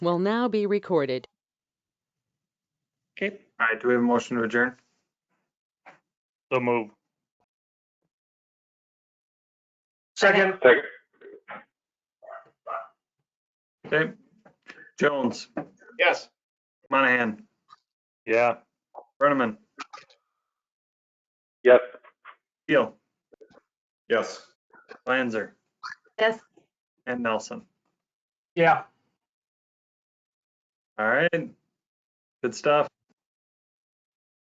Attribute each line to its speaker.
Speaker 1: will now be recorded.
Speaker 2: Okay,
Speaker 3: All right, do we have a motion to adjourn?
Speaker 2: so move.
Speaker 4: Second.
Speaker 3: Okay. Jones,
Speaker 4: Yes.
Speaker 3: Monahan,
Speaker 2: Yeah,
Speaker 3: Brenneman,
Speaker 4: Yes.
Speaker 3: Keel,
Speaker 4: Yes.
Speaker 3: Lanzer,
Speaker 5: Yes.
Speaker 3: and Nelson.
Speaker 4: Yeah.
Speaker 3: All right. Good stuff.